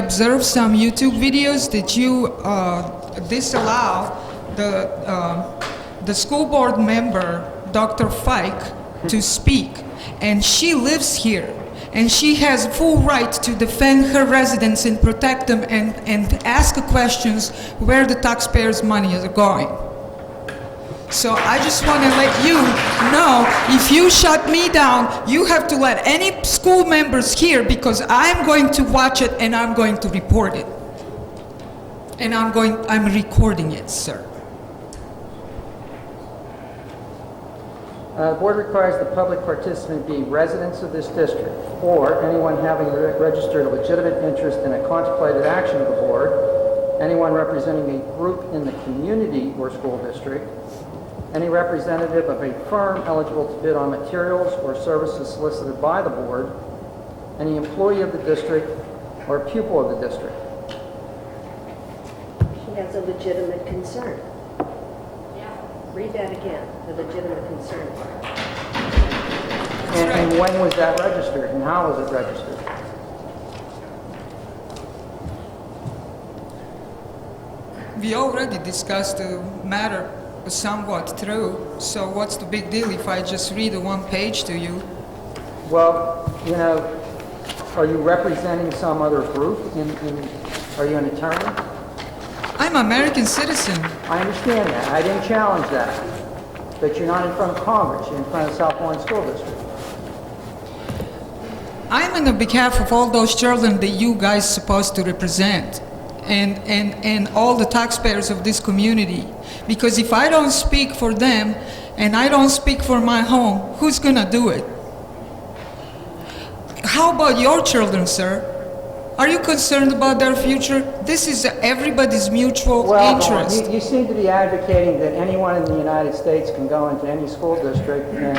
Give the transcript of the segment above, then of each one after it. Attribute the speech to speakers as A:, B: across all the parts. A: observe some YouTube videos that you uh, disallow the, uh, the school board member, Dr. Fike, to speak. And she lives here, and she has full right to defend her residents and protect them and, and ask questions where the taxpayers' money is going. So I just want to let you know, if you shut me down, you have to let any school members here because I'm going to watch it and I'm going to report it. And I'm going, I'm recording it, sir.
B: Uh, Board requires the public participant be residents of this district or anyone having re- registered a legitimate interest in a contemplated action of the board, anyone representing a group in the community or school district, any representative of a firm eligible to bid on materials or services solicited by the board, any employee of the district or pupil of the district.
C: She has a legitimate concern. Read that again, the legitimate concern part.
B: And and when was that registered and how was it registered?
A: We already discussed the matter somewhat through, so what's the big deal if I just read the one page to you?
B: Well, you know, are you representing some other group in, in, are you an attorney?
A: I'm American citizen.
B: I understand that, I didn't challenge that, but you're not in front of Congress, you're in front of South Lawrence School District.
A: I'm on the behalf of all those children that you guys supposed to represent and, and, and all the taxpayers of this community. Because if I don't speak for them and I don't speak for my home, who's gonna do it? How about your children, sir? Are you concerned about their future? This is everybody's mutual
B: Well,
A: interest.
B: you- you seem to be advocating that anyone in the United States can go into any school district in,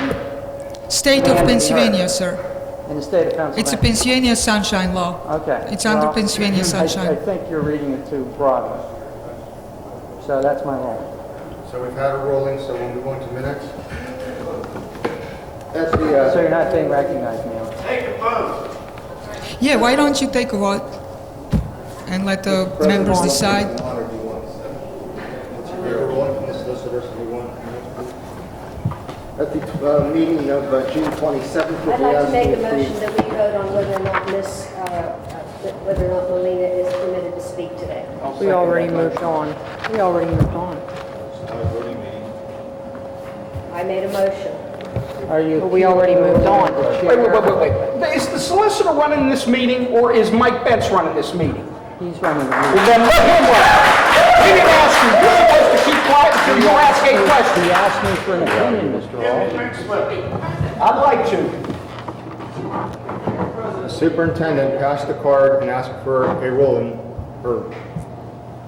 A: State
B: Yeah,
A: of
B: yeah.
A: Pennsylvania, sir.
B: in the state of
A: It's a
B: Pennsylvania.
A: Pennsylvania sunshine law.
B: Okay.
A: It's under
B: well,
A: Pennsylvania
B: I- I
A: sunshine.
B: think you're reading it too broadly. So that's my role.
D: So we've had a rolling, so we'll move on to minutes. That's the,
B: So
D: uh,
B: you're not being recognized, ma'am.
A: Yeah, why don't you take a vote and let the
D: President
A: members
D: wants
A: decide?
D: to honor the ones. Let's hear a rolling from the solicitors if you want. At the uh, meeting of uh, June 27th, we'll
C: I'd
D: be
C: like to
D: asked
C: make
D: to
C: a motion
D: approve.
C: that we vote on whether or not Miss, uh, uh, that whether or not Melina is permitted to speak today.
E: We already moved on. We already moved on.
C: I made a motion.
B: Are you?
E: But we already moved on.
F: Wait, wait, wait, wait, wait. Is the solicitor running this meeting, or is Mike Betts running this meeting?
B: He's running the meeting.
F: Well, then let him run it. He didn't ask you. You're supposed to keep quiet until you ask a question.
B: He asked me for an opinion, Mr. Hall.
F: I'd like to.
D: The Superintendent passed the card and asked for a rolling, or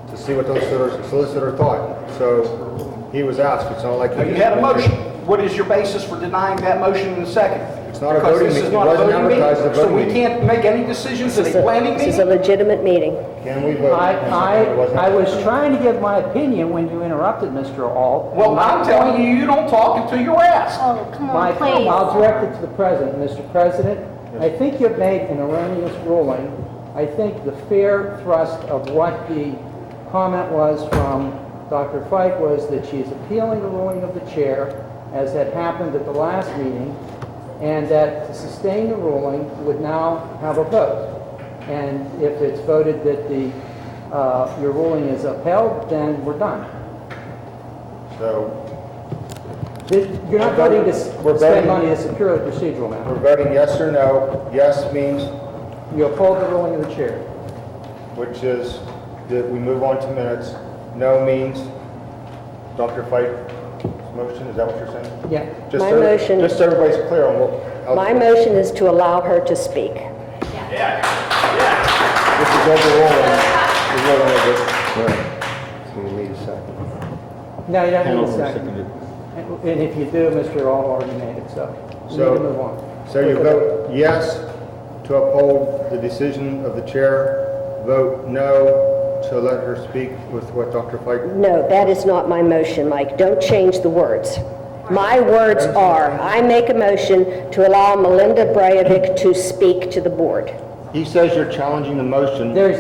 D: to see what those solicitor- solicitor thought. So he was asked, it's not like. he
F: You
D: just-
F: had a motion. What is your basis for denying that motion in a second?
D: It's not a voting
F: Because this is
D: meeting. It
F: not a
D: wasn't
F: voting meeting,
D: advertised as a voting
F: So we
D: meeting.
F: can't make any decisions at a planning
C: This is a
F: meeting?
C: legitimate meeting.
D: Can we vote?
B: I,
D: It wasn't-
B: I, I was trying to give my opinion when you interrupted, Mr. Hall.
F: Well, I'm telling you, you don't talk until you're asked.
G: Oh, come
B: My,
G: on, please.
B: I'll direct it to the president. Mr. President, I think you've made an erroneous ruling. I think the fair thrust of what the comment was from Dr. Fike was that she is appealing the ruling of the chair, as had happened at the last meeting, and that to sustain the ruling would now have a vote. And if it's voted that the, uh, your ruling is upheld, then we're done.
D: So
B: You're not voting to s-
D: We're
B: spend
D: voting-
B: money, it's a purely procedural matter.
D: we're voting yes or no. Yes means,
B: You uphold the ruling of the chair.
D: which is that we move on to minutes. No means Dr. Fike's motion, is that what you're saying?
B: Yeah.
D: Just
C: My
D: so-
C: motion-
D: Just so everybody's clear on what. how-
C: My motion is to allow her to speak.
D: This is overruling, the ruling of the- So you need a second.
B: No, you don't need a second. And and if you do, Mr. Hall already made it, so you need
D: So-
B: to move on.
D: So you vote yes to uphold the decision of the chair, vote no to let her speak with what Dr. Fike
C: No, that is not my motion, Mike. Don't change the words. My words are, I make a motion to allow Melinda Breivik to speak to the board.
D: He says you're challenging the motion.
B: There's